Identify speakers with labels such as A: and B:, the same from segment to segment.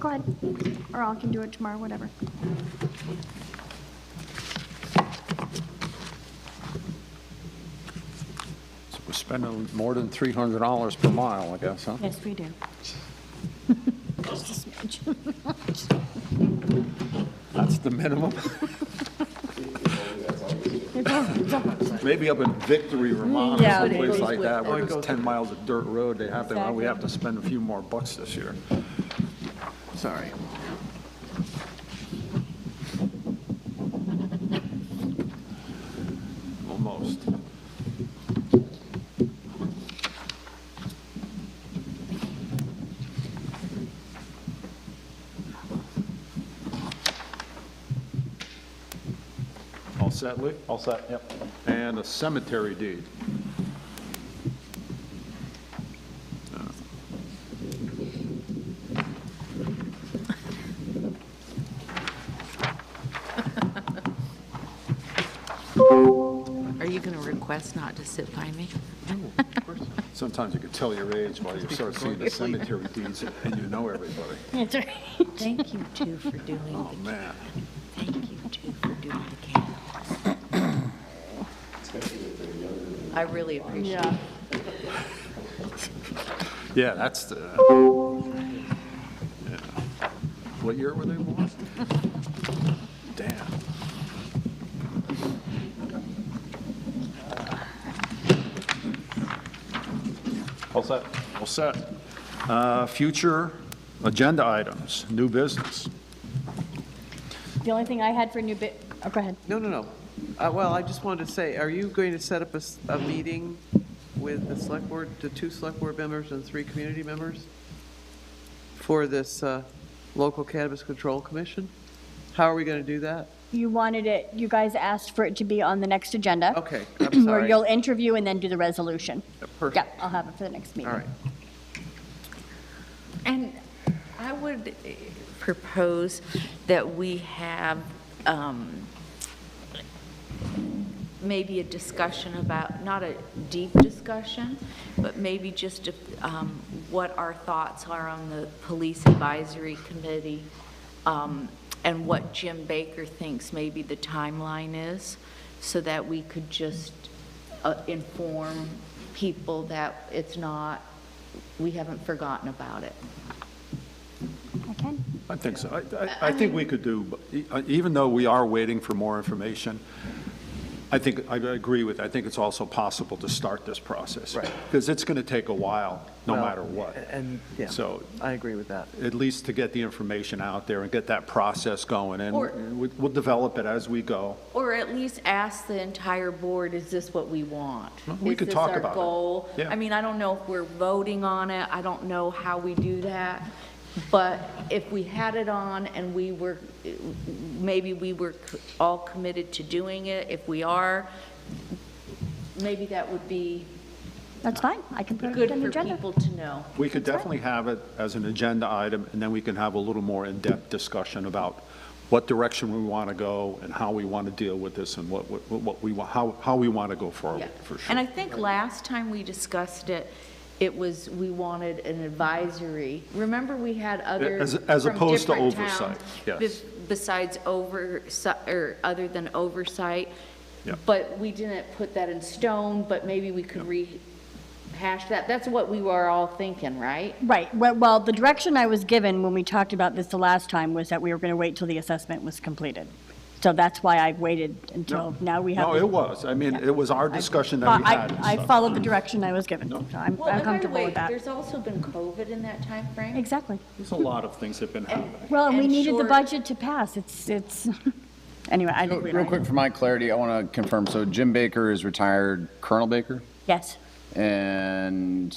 A: Go ahead, or I can do it tomorrow, whatever.
B: So we're spending more than $300 per mile, I guess, huh?
C: Yes, we do. Just a smidge.
B: That's the minimum?
C: It's all- it's all-
B: Maybe up in Victory, Vermont, or
C: Yeah,
B: someplace
C: it
B: like
C: goes
B: that, where there's 10 miles of dirt road, they have to, well, we have to spend a few more bucks this year. Sorry. Almost. All set, Lee?
D: All set, yep.
B: and a cemetery deed.
E: Are you going to request not to sit by me?
B: Sometimes you can tell your age by you start seeing the cemetery deeds and you know everybody.
C: That's right.
E: Thank you too for doing
B: Oh,
E: the,
B: man.
E: thank you too for doing the candles. I really appreciate it.
C: Yeah.
B: Yeah, that's the, yeah. What year were they born? Damn.
D: All set.
B: All set. Uh, Future agenda items, new business.
C: The only thing I had for new bit, oh, go ahead.
F: No, no, no. Uh, Well, I just wanted to say, are you going to set up a, s- a meeting with the select board, the two select board members and three community members for this uh, local cannabis control commission? How are we going to do that?
C: You wanted it, you guys asked for it to be on the next agenda.
F: Okay, I'm
C: Where
F: sorry.
C: you'll interview and then do the resolution. Yeah,
F: Perfect.
C: I'll have it for the next meeting.
F: All right.
E: And I would eh, propose that we have um, maybe a discussion about, not a deep discussion, but maybe just um, what our thoughts are on the Police Advisory Committee um, and what Jim Baker thinks maybe the timeline is, so that we could just uh, inform people that it's not, we haven't forgotten about it.
C: I can.
B: I think so. I- I, I think we could do, e, uh, even though we are waiting for more information, I think, I agree with, I think it's also possible to start this process.
F: Right.
B: Because it's going to take a while, no
F: Well,
B: matter what.
F: And, yeah,
B: So
F: I agree with that.
B: at least to get the information out there and get that process going, and
E: Or-
B: we- we'll develop it as we go.
E: Or at least ask the entire board, is this what we want?
B: we could talk
E: Is this
B: about
E: our
B: it.
E: goal?
B: Yeah.
E: I mean, I don't know if we're voting on it, I don't know how we do that, but if we had it on and we were, maybe we were all committed to doing it, if we are, maybe that would be
C: That's fine. I can put
E: good
C: it on the
E: for
C: agenda.
E: people to know.
B: We could definitely have it as an agenda item, and then we can have a little more in-depth discussion about what direction we want to go and how we want to deal with this and what, what- what we, wa- how, how we want to go
E: Yeah.
B: forward, for sure.
E: And I think last time we discussed it, it was, we wanted an advisory. Remember, we had others
B: As-
E: from
B: as opposed to
E: different
B: oversight,
E: towns
B: yes.
E: bes- Besides oversight, or other than oversight.
B: Yeah.
E: But we didn't put that in stone, but maybe we could rehash that. That's what we were all thinking, right?
C: Right, well, well, the direction I was given when we talked about this the last time was that we were going to wait till the assessment was completed. So that's why I've waited until now we have.
B: No, it was. I mean, it was our discussion that we
C: I-
B: had. and
C: I
B: stuff.
C: followed the direction I was given, so I'm
E: Well,
C: I'm
E: and by the
C: comfortable
E: way,
C: with that.
E: there's also been COVID in that timeframe.
C: Exactly.
B: There's a lot of things that have been happening.
C: Well, and we
E: And
C: needed the
E: short-
C: budget to pass, it's, it's, anyway, I don't.
G: Real quick, for my clarity, I want to confirm, so Jim Baker is retired Colonel Baker?
C: Yes,
G: And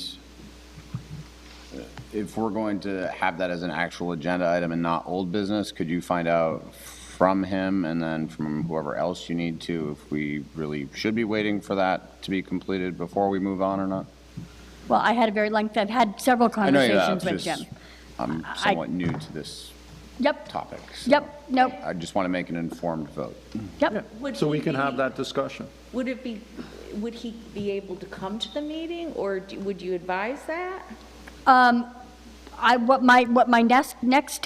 G: if we're going to have that as an actual agenda item and not old business, could you find out from him and then from whoever else you need to, if we really should be waiting for that to be completed before we move on or not?
C: well, I had a very lengthy, I've had several
G: I know you
C: conversations
G: have,
C: with
G: just,
C: Jim.
G: I'm
C: I-
G: somewhat new to this
C: Yep,
G: topic. so
C: yep, nope,
G: I just want to make an informed vote.
C: yep.
E: Would
B: So we
E: he
B: can have
E: be-
B: that discussion.
E: Would it be, would he be able to come to the meeting, or do- would you advise that?
C: Um, I, what my, what my next, next